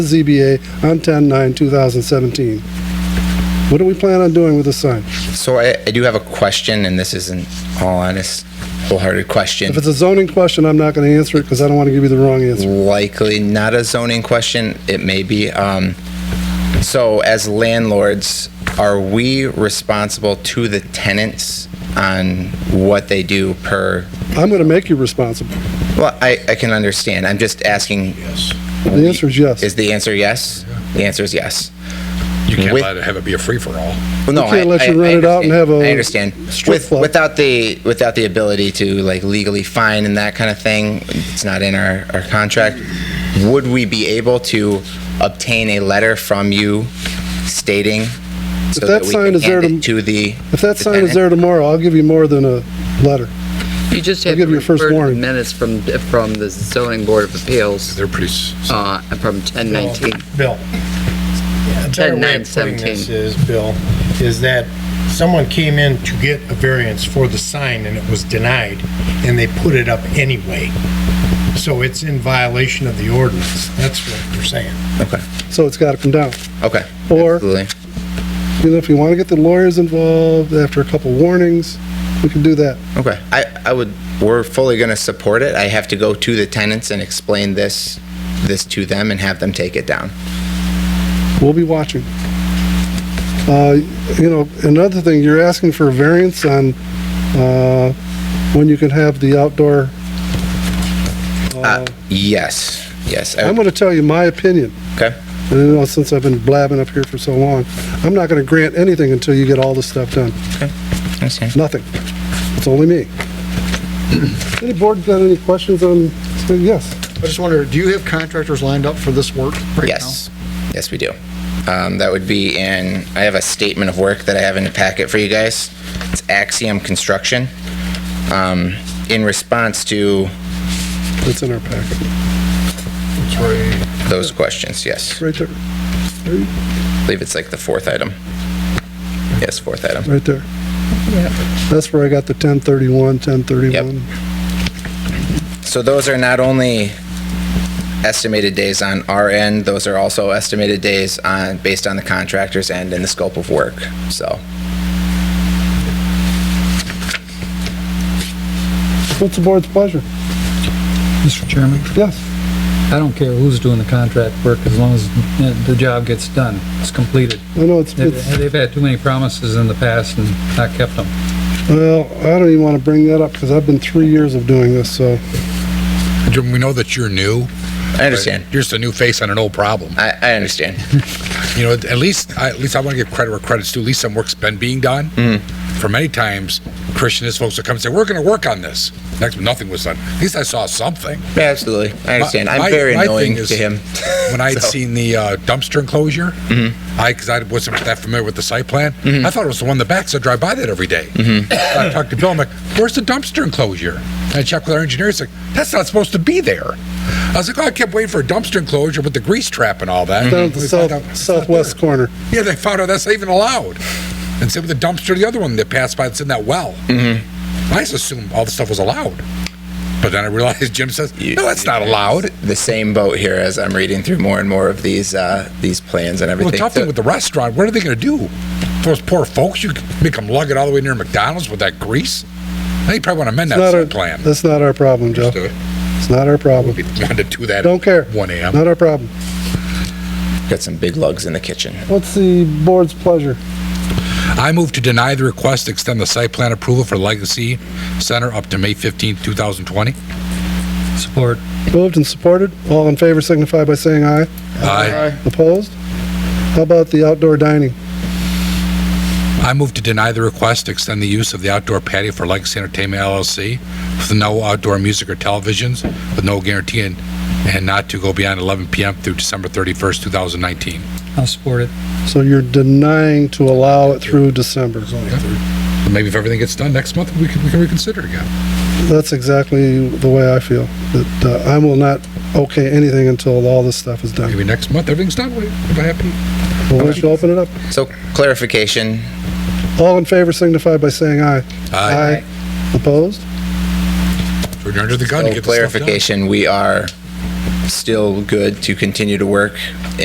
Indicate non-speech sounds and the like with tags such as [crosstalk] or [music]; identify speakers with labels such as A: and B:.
A: ZBA on 10/9/2017. What do we plan on doing with the sign?
B: So I, I do have a question, and this isn't all honest, wholehearted question.
A: If it's a zoning question, I'm not going to answer it because I don't want to give you the wrong answer.
B: Likely not a zoning question. It may be. Um, so as landlords, are we responsible to the tenants on what they do per?
A: I'm going to make you responsible.
B: Well, I, I can understand. I'm just asking.
A: The answer is yes.
B: Is the answer yes? The answer is yes.
C: You can't
B: With-
C: let it have it be a free for all.
B: Well, no,
A: We can't
B: I-
A: let you
B: I-
A: rent
B: I
A: it out and
B: understand.
A: have a
B: I understand.
A: strip
B: With-
A: club.
B: Without the, without the ability to like legally fine and that kind of thing, it's not in our, our contract. Would we be able to obtain a letter from you stating? so
A: that
B: we
A: sign
B: can
A: is there
B: hand it
A: to-
B: To the.
A: If that
B: the
A: sign is
B: tenant?
A: there tomorrow, I'll give you more than a letter.
D: You just
A: I'll
D: have
A: give you your
D: to
A: first
D: refer to the
A: warning.
D: minutes from, from the zoning board of appeals,
C: They're pretty, s-
D: uh, from 1019.
E: Bill. A better way of putting
D: 10-9-17.
E: this is, Bill, is that someone came in to get a variance for the sign and it was denied, and they put it up anyway. So it's in violation of the ordinance. That's what they're saying.
B: Okay,
A: So it's got to come down.
B: okay.
A: Or-
B: Absolutely.
A: You know, if you want to get the lawyers involved after a couple warnings, we can do that.
B: Okay, I, I would, we're fully going to support it. I have to go to the tenants and explain this, this to them and have them take it down.
A: We'll be watching. Uh, You know, another thing, you're asking for a variance on uh, when you can have the outdoor. Oh.
B: Uh, Yes, yes. I-
A: I'm going to tell you my opinion.
B: Okay,
A: And, you know, since I've been blabbing up here for so long, I'm not going to grant anything until you get all this stuff done.
B: understand.
A: Nothing. It's only [clears throat] me. Any board got any questions on, so, yes.
F: I just wonder, do you have contractors lined up for this work right now?
B: Yes, yes, we do. Um, that would be in, I have a statement of work that I have in the packet for you guys. It's Axiom Construction. Um, in response to
A: It's in our packet,
F: That's right.
B: those questions, yes.
A: right there,
B: I believe it's like the fourth item. Yes, fourth item.
A: right there. That's where I got the 1031, 1031.
B: So those are not only estimated days on our end, those are also estimated days on, based on the contractor's end and the scope of work, so.
A: What's the board's pleasure?
G: Mr. Chairman,
A: Yes,
G: I don't care who's doing the contract work as long as uh, the job gets done, it's completed.
A: I know it's,
G: They-
A: it's,
G: They've had too many promises in the past and not kept them.
A: well, I don't even want to bring that up because I've been three years of doing this, so.
C: Jim, we know that you're new.
B: I understand.
C: You're just a new face on an old problem.
B: I, I understand.
C: You know, at least, I- at least I want to give credit where credit's due. At least some work's been being done. For many times, Christian is folks will come and say, we're going to work on this. Next, nothing was done. At least I saw something.
B: Absolutely, I understand.
C: My-
B: I'm very
C: my thing
B: annoying
C: is,
B: to him.
C: [laughs] When I had
B: So- Mm-hmm.
C: seen the uh, dumpster enclosure, I, because I wasn't that familiar with the site plan, I thought it was the one in the back, so I drive by that every day.
B: Mm-hmm.
C: [laughs] I talked to Bill, I'm like, where's the dumpster enclosure? And I checked with our engineer, he's like, that's not supposed to be there. I was like, oh, I kept waiting for a dumpster enclosure with the grease trap and all that. Mm-hmm.
A: Down at the
C: We found out-
A: south, southwest corner.
C: Yeah, they found out that's not even allowed. And same with the dumpster, the other one that passed by that's in that well.
B: Mm-hmm.
C: I just assumed all the stuff was allowed. But then I realized Jim says, no, that's not allowed.
B: the same boat here as I'm reading through more and more of these uh, these plans and
C: Well,
B: everything.
C: the tough thing with the restaurant, what are they going to do? Those poor folks, you make them lug it all the way near McDonald's with that grease? They probably want to amend
A: It's not uh,
C: that
A: our,
C: site plan.
A: that's not our problem, Joe.
C: Understood.
A: It's not our problem.
C: Be one to do that.
A: Don't care.
C: at One AM.
A: Not our problem.
B: Got some big lugs in the kitchen.
A: What's the board's pleasure?
C: I move to deny the request to extend the site plan approval for Legacy Center up to May fifteenth, two thousand twenty.
G: Support.
A: Moved and supported. All in favor signify by saying aye.
C: I,
A: Opposed? How about the outdoor dining?
C: I move to deny the request to extend the use of the outdoor patio for Legacy Entertainment LLC with no outdoor music or televisions, with no guarantee and, and not to go beyond eleven PM through December thirty-first, two thousand nineteen.
G: I'll support it.
A: So you're denying to allow it through December.
C: Maybe if everything gets done next month, we can, we can reconsider again.
A: That's exactly the way I feel, that uh, I will not okay anything until all this stuff is done.
C: Maybe next month, everything's done. We're happy.
A: Well, we should open it up.
B: So clarification.
A: All in favor signify by saying aye.
C: Aye.
A: Opposed?
C: We're under the gun to
B: So
C: get this stuff done.
B: clarification. We are still good to continue to work